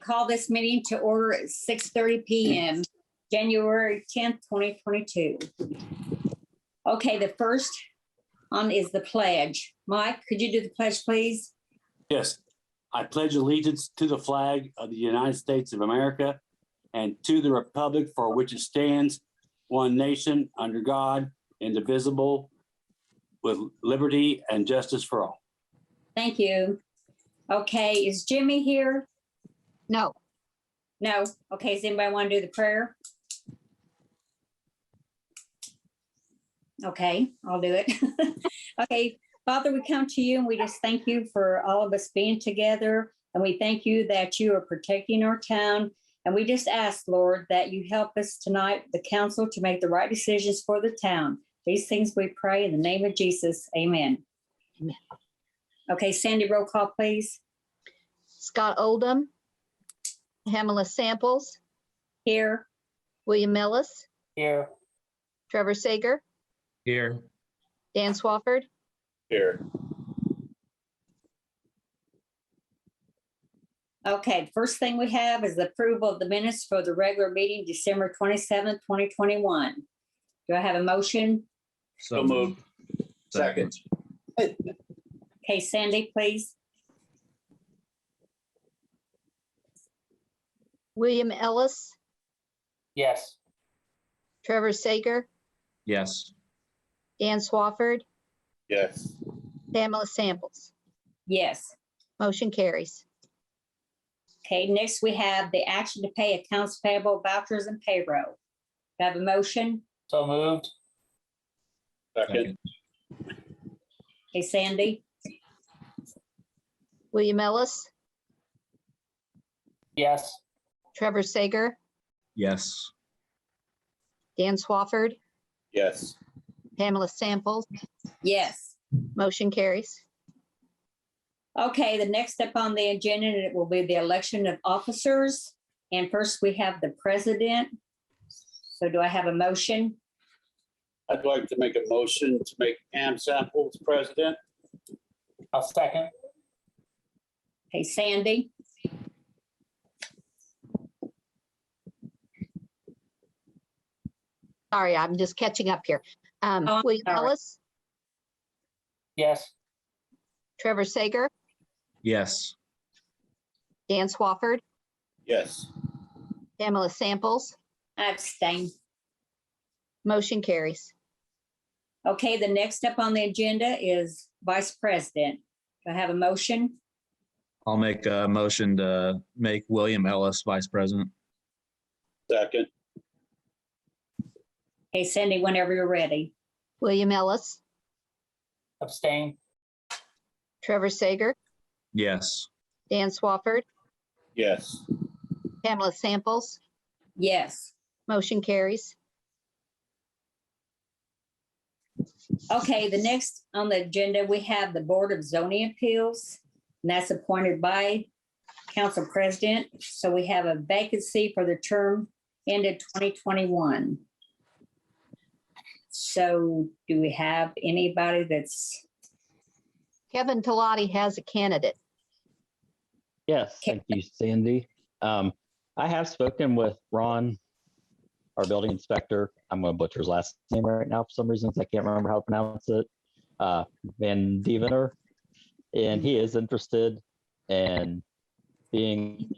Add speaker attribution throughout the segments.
Speaker 1: call this meeting to order at six thirty PM, January tenth, twenty twenty-two. Okay, the first on is the pledge. Mike, could you do the pledge, please?
Speaker 2: Yes, I pledge allegiance to the flag of the United States of America and to the republic for which it stands, one nation, under God, indivisible, with liberty and justice for all.
Speaker 1: Thank you. Okay, is Jimmy here?
Speaker 3: No,
Speaker 1: No. Okay, does anybody want to do the prayer? Okay, I'll do it. Okay, Father, we come to you and we just thank you for all of us being together. And we thank you that you are protecting our town. And we just ask, Lord, that you help us tonight, the council, to make the right decisions for the town. These things we pray in the name of Jesus. Amen.
Speaker 3: Amen.
Speaker 1: Okay, Sandy, roll call, please.
Speaker 3: Scott Oldham, Pamela Samples,
Speaker 1: Here.
Speaker 3: William Ellis,
Speaker 4: Here.
Speaker 3: Trevor Sager,
Speaker 4: Here.
Speaker 3: Dan Swafford,
Speaker 4: Here.
Speaker 1: Okay, first thing we have is the approval of the minutes for the regular meeting, December twenty-seventh, twenty twenty-one. Do I have a motion?
Speaker 4: So moved. Second.
Speaker 1: Okay, Sandy, please.
Speaker 3: William Ellis,
Speaker 4: Yes.
Speaker 3: Trevor Sager,
Speaker 4: Yes.
Speaker 3: Dan Swafford,
Speaker 4: Yes.
Speaker 3: Pamela Samples.
Speaker 1: Yes.
Speaker 3: Motion carries.
Speaker 1: Okay, next we have the action to pay accounts payable vouchers and payroll. Do I have a motion?
Speaker 4: So moved. Second.
Speaker 1: Okay, Sandy?
Speaker 3: William Ellis,
Speaker 4: Yes.
Speaker 3: Trevor Sager,
Speaker 5: Yes,
Speaker 3: Dan Swafford,
Speaker 4: Yes.
Speaker 3: Pamela Samples.
Speaker 1: Yes.
Speaker 3: Motion carries.
Speaker 1: Okay, the next step on the agenda, and it will be the election of officers. And first we have the president. So do I have a motion?
Speaker 6: I'd like to make a motion to make Pam Samples president.
Speaker 4: A second.
Speaker 1: Okay, Sandy?
Speaker 3: Sorry, I'm just catching up here. Um,
Speaker 1: Oh,
Speaker 3: William
Speaker 1: sorry.
Speaker 3: Ellis,
Speaker 4: Yes.
Speaker 3: Trevor Sager,
Speaker 5: yes,
Speaker 3: Dan Swafford,
Speaker 6: Yes,
Speaker 3: Pamela Samples.
Speaker 1: I abstain.
Speaker 3: Motion carries.
Speaker 1: Okay, the next step on the agenda is Vice President. Do I have a motion?
Speaker 5: I'll make a motion to make William Ellis vice president.
Speaker 6: second.
Speaker 1: Okay, Cindy, whenever you're ready.
Speaker 3: William Ellis,
Speaker 4: Abstain.
Speaker 3: Trevor Sager,
Speaker 5: Yes,
Speaker 3: Dan Swafford,
Speaker 6: Yes,
Speaker 3: Pamela Samples.
Speaker 1: Yes.
Speaker 3: Motion carries.
Speaker 1: Okay, the next on the agenda, we have the Board of Zoning Appeals, and that's appointed by Council President. So we have a vacancy for the term ended 2021. So do we have anybody that's,
Speaker 3: Kevin Talati has a candidate.
Speaker 7: Yes,
Speaker 1: Okay.
Speaker 7: thank you, Sandy. Um, I have spoken with Ron, our building inspector. I'm gonna butcher his last name right now for some reasons. I can't remember how to pronounce it. Uh, Van Devener. And he is interested in being.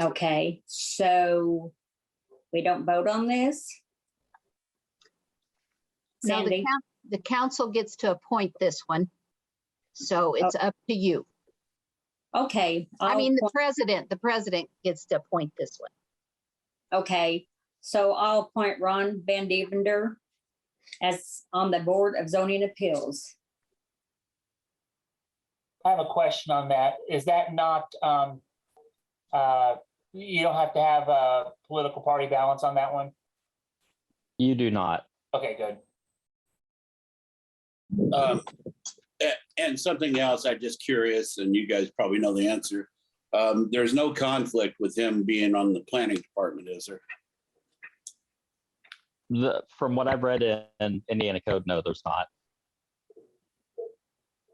Speaker 1: okay, so we don't vote on this?
Speaker 3: Now, the
Speaker 1: Sandy?
Speaker 3: coun- The council gets to appoint this one. So it's up to you.
Speaker 1: Okay.
Speaker 3: I
Speaker 1: Oh. I'll
Speaker 3: mean, the
Speaker 1: appoint-
Speaker 3: president, the president gets to appoint this one.
Speaker 1: okay, so I'll appoint Ron Van Divender as on the Board of Zoning Appeals.
Speaker 8: I have a question on that. Is that not, um, uh, you don't have to have a political party balance on that one?
Speaker 7: You do not.
Speaker 8: Okay, good.
Speaker 6: Um, a- And something else, I'm just curious, and you guys probably know the answer. Um, There's no conflict with him being on the planning department, is there?
Speaker 7: The, from what I've read in Indiana code, no, there's not.